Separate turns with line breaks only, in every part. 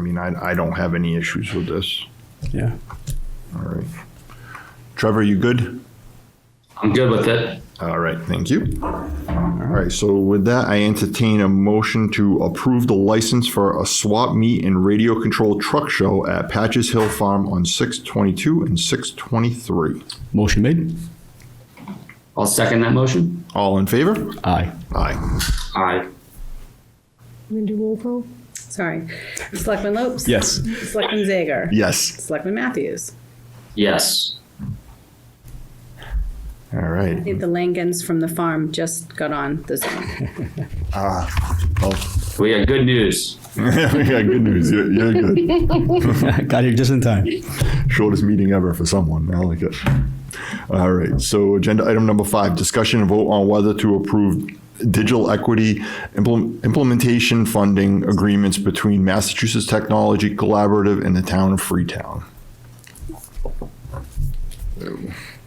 mean, I, I don't have any issues with this.
Yeah.
All right. Trevor, you good?
I'm good with it.
All right, thank you. All right, so with that, I entertain a motion to approve the license for a swap meet and radio control truck show at Patches Hill Farm on six twenty-two and six twenty-three.
Motion made.
I'll second that motion.
All in favor?
Aye.
Aye.
Aye.
I'm gonna do roll call.
Sorry. Selectman Lopes?
Yes.
Selectman Zager?
Yes.
Selectman Matthews?
Yes.
All
I
right.
think the Langens from the farm just got on the zone.
We got good news.
Yeah, good news. You're, you're good.
Got here just in time.
Shortest meeting ever for someone. I like it. All right. So, agenda item number five discussion and vote on whether to approve digital equity implement, implementation funding agreements between Massachusetts Technology Collaborative and the town of Freetown.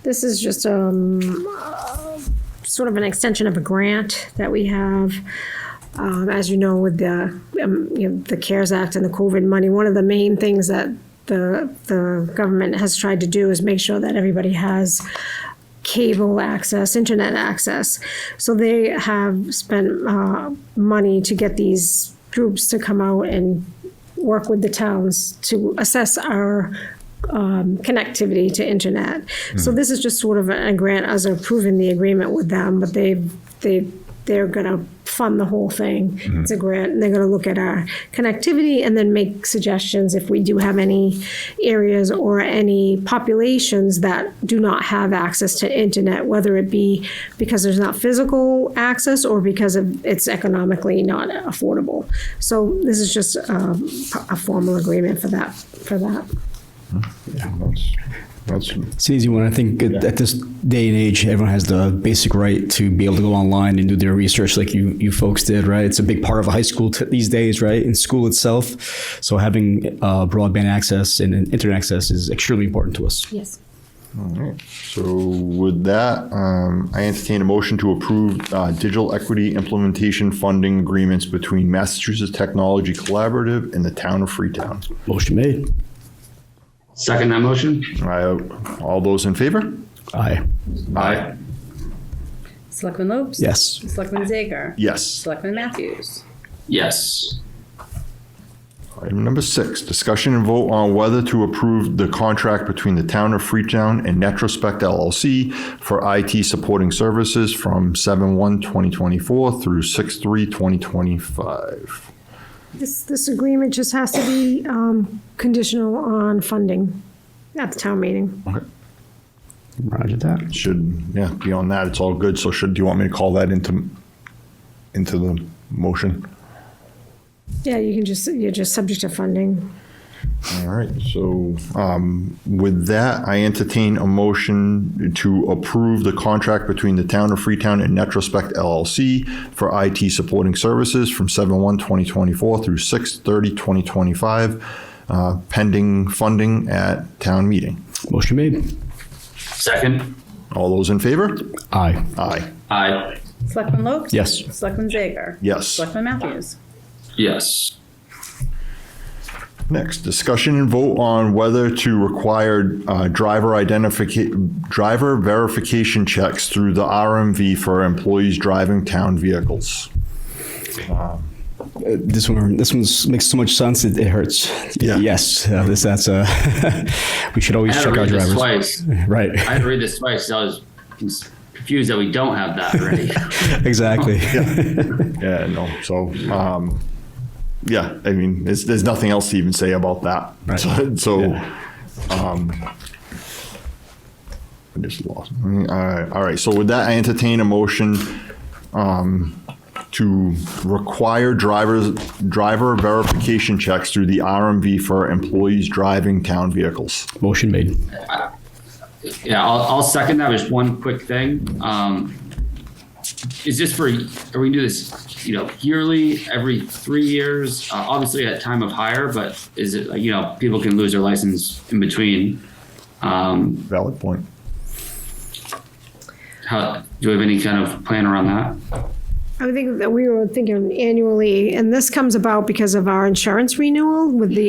This is just um, uh, sort of an extension of a grant that we have. Um, As you know, with the, um, you know, the CARES Act and the COVID money, one of the main things that the, the government has tried to do is make sure that everybody has cable access, internet access. So they have spent uh, money to get these groups to come out and work with the towns to assess our um, connectivity to internet. So this is just sort of a, a grant as approving the agreement with them, but they they they're gonna fund the whole thing. It's a grant, and they're gonna look at our connectivity and then make suggestions if we do have any areas or any populations that do not have access to internet, whether it be because there's not physical access or because of it's economically not affordable. So this is just um, a formal agreement for that for that.
That's, that's
It's an easy one. I think at, at this day and age, everyone has the basic right to be able to go online and do their research like you, you folks did, right? It's a big part of high school t- these days, right? In school itself. So having uh, broadband access and, and internet access is extremely important to us.
Yes.
So with that, um, I entertain a motion to approve uh, digital equity implementation funding agreements between Massachusetts Technology Collaborative and the town of Freetown.
Motion made.
Second that motion.
I- All those in favor?
Aye.
Aye.
Selectman Lopes?
Yes.
Selectman Zager?
Yes.
Selectman Matthews?
Yes.
Item number six, discussion and vote on whether to approve the contract between the town of Freetown and Netrospect LLC for IT supporting services from 7/1/2024 through 6/3/2025.
This this agreement just has to be um, conditional on funding at the town meeting.
Roger that.
should, yeah, beyond that, it's all good. So should, do you want me to call that into, into the motion?
Yeah, you can just you're just subject to funding.
All right, so um, with that, I entertain a motion to approve the contract between the town of Freetown and Netrospect LLC for IT supporting services from 7/1/2024 through 6/30/2025, uh, pending funding at town meeting.
Motion made.
Second.
All those in favor?
Aye.
Aye.
Aye.
Selectman Lopes?
Yes.
Selectman Zager?
Yes.
Selectman Matthews?
Yes.
Next, discussion and vote on whether to require uh, driver identification, driver verification checks through the RMV for employees driving town vehicles.
This one, this one makes so much sense it, it hurts.
Yeah.
Yes, uh, this that's uh, we should
I
always
had to
check our
read this
drivers.
twice.
Right.
I had to read this twice. 'cause I was confused that we don't have that already.
exactly.
Yeah, no, so, um, yeah, I mean, there's, there's nothing else to even say about that.
Right.
So- So, um,
Yeah.
I just lost. All right, all right, so with that, I entertain a motion um, to require drivers, driver verification checks through the RMV for employees driving town vehicles.
Motion made.
Yeah, I'll, I'll second that. Just one quick thing. Um, is this for, are we do this, you know, yearly, every three years? Uh, obviously at time of hire, but is it, like, you know, people can lose their license in between. Um,
Valid point.
how, do we have any kind of plan around that?
I would think that we were thinking annually, and this comes about because of our insurance renewal with the